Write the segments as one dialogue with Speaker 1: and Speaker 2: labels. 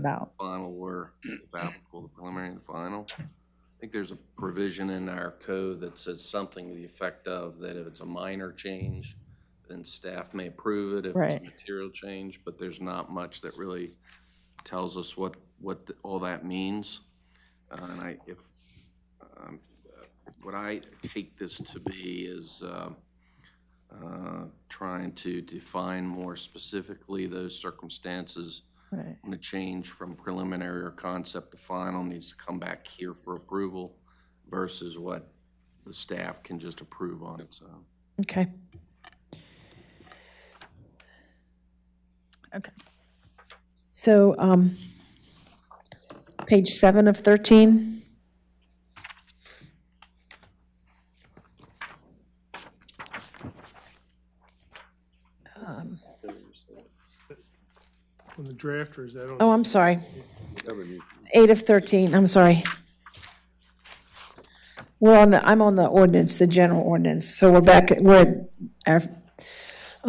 Speaker 1: about.
Speaker 2: final were, if applicable, the preliminary and the final. I think there's a provision in our code that says something to the effect of that if it's a minor change, then staff may approve it if it's a
Speaker 1: Right.
Speaker 2: material change, but there's not much that really tells us what, what th- all that means. Uh, And I, if, um, uh, what I take this to be is uh, uh, trying to define more specifically those circumstances
Speaker 1: Right.
Speaker 2: and the change from preliminary or concept to final needs to come back here for approval versus what the staff can just approve on its own.
Speaker 1: Okay. Okay.
Speaker 3: So, um, page seven of 13,
Speaker 4: On the drafter, is that on?
Speaker 3: oh, I'm sorry. Eight of 13, I'm sorry. We're on the, I'm on the ordinance, the general ordinance, so we're back, at- we're at our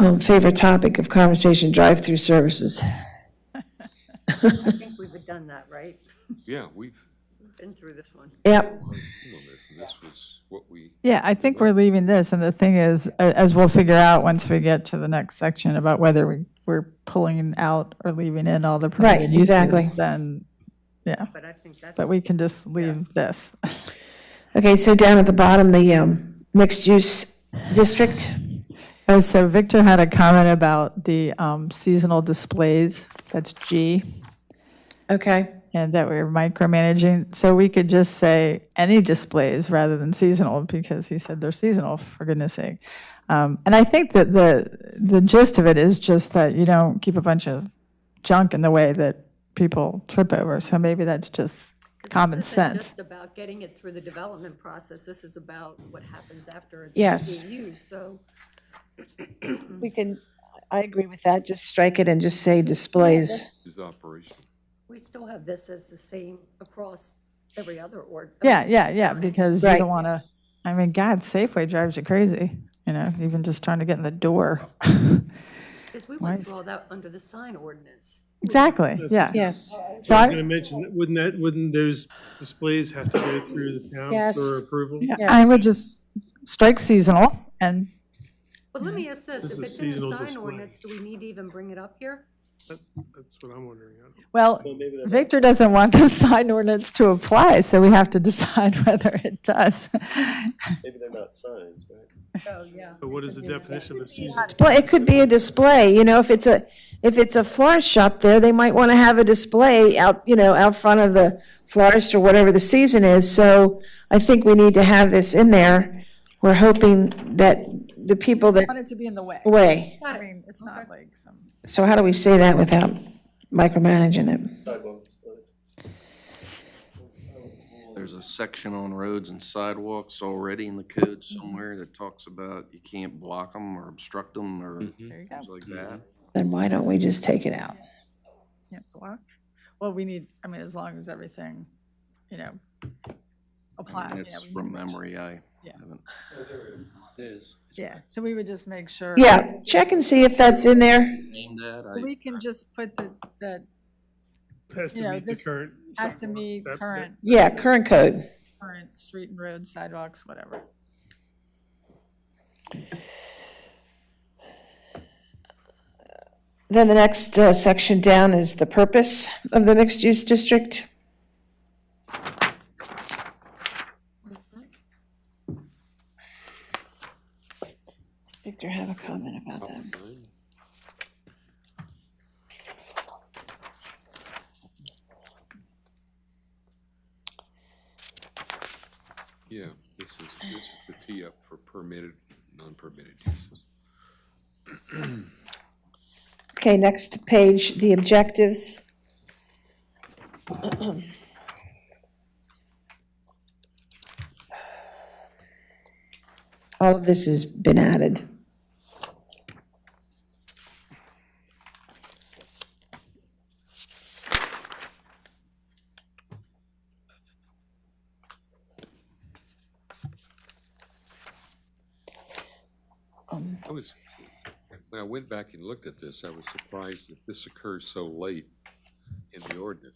Speaker 3: um, favorite topic of conversation, drive-through services.
Speaker 5: I think we've done that, right?
Speaker 6: Yeah, we've
Speaker 5: We've Been through this one.
Speaker 3: Yep,
Speaker 6: been on this, and this was what we,
Speaker 1: Yeah, I think we're leaving this, and the thing is, a- as we'll figure out once we get to the next section about whether we, we're pulling out or leaving in all the permitted uses,
Speaker 3: exactly.
Speaker 1: then, yeah,
Speaker 5: But I think that's.
Speaker 1: but we can just leave this.
Speaker 3: okay, so down at the bottom, the um, mixed-use district,
Speaker 1: Oh, so Victor had a comment about the um, seasonal displays, that's G,
Speaker 3: okay,
Speaker 1: and that we're micromanaging. So we could just say any displays rather than seasonal, because he said they're seasonal, for goodness sake. Um, And I think that the, the gist of it is just that you don't keep a bunch of junk in the way that people trip over. So maybe that's just common
Speaker 5: This isn't
Speaker 1: sense.
Speaker 5: just about getting it through the development process. This is about what happens after it's.
Speaker 3: Yes.
Speaker 5: being used. So
Speaker 3: we can, I agree with that, just strike it and just say displays.
Speaker 6: is operational.
Speaker 5: we still have this as the same across every other ord.
Speaker 1: Yeah, yeah, yeah, because you
Speaker 3: Right.
Speaker 1: don't want to, I mean, God, Safeway drives you crazy, you know, even just trying to get in the door.
Speaker 5: Because we went
Speaker 1: Nice.
Speaker 5: through all that under the sign ordinance.
Speaker 1: Exactly, yeah.
Speaker 3: Yes,
Speaker 1: So
Speaker 4: I was
Speaker 1: I-
Speaker 4: gonna mention, wouldn't that, wouldn't those displays have to go through the town
Speaker 3: Yes.
Speaker 4: for approval?
Speaker 1: Yeah, I would just strike seasonal and,
Speaker 5: But
Speaker 1: Mm-hmm.
Speaker 5: let me ask this,
Speaker 4: This is
Speaker 5: if it's in the
Speaker 4: seasonal
Speaker 5: sign
Speaker 4: display.
Speaker 5: ordinance, do we need to even bring it up here?
Speaker 4: That's what I'm wondering.
Speaker 1: well, Victor doesn't want the sign ordinance to apply, so we have to decide whether it does.
Speaker 7: Maybe they're not signs, right?
Speaker 5: Oh, yeah.
Speaker 4: But what is the definition of a season?
Speaker 3: display, it could be a display, you know, if it's a, if it's a florist shop there, they might want to have a display out, you know, out front of the florist or whatever the season is, so I think we need to have this in there. We're hoping that the people that,
Speaker 1: it to be in the way.
Speaker 3: way,
Speaker 1: I mean, it's not like some.
Speaker 3: so how do we say that without micromanaging it?
Speaker 7: Sidewalk displays.
Speaker 2: There's a section on roads and sidewalks already in the code somewhere that talks about you can't block them or obstruct them or
Speaker 1: There you
Speaker 2: things like that.
Speaker 3: Then why don't we just take it out?
Speaker 1: Can't block. Well, we need, I mean, as long as everything, you know,
Speaker 2: I
Speaker 1: applies.
Speaker 2: mean, That's from memory, I
Speaker 1: Yeah.
Speaker 2: haven't.
Speaker 1: Yeah, so we would just make sure.
Speaker 3: Yeah, check and see if that's in there.
Speaker 2: named that. I-
Speaker 1: We can just put the, that
Speaker 4: Has
Speaker 1: You
Speaker 4: to
Speaker 1: know,
Speaker 4: meet the
Speaker 1: this
Speaker 4: current.
Speaker 1: has to
Speaker 4: sidewalk.
Speaker 1: meet
Speaker 4: That- that-
Speaker 1: current,
Speaker 3: Yeah, current code.
Speaker 1: current street and road sidewalks, whatever.
Speaker 3: Then the next uh, section down is the purpose of the mixed-use district. Does Victor have a comment about that?
Speaker 6: Yeah, this is, this is the tee up for permitted, non-permitted uses.
Speaker 3: Okay, next page, the objectives. All of this has been added.
Speaker 6: I was, when I went back and looked at this, I was surprised that this occurs so late in the ordinance.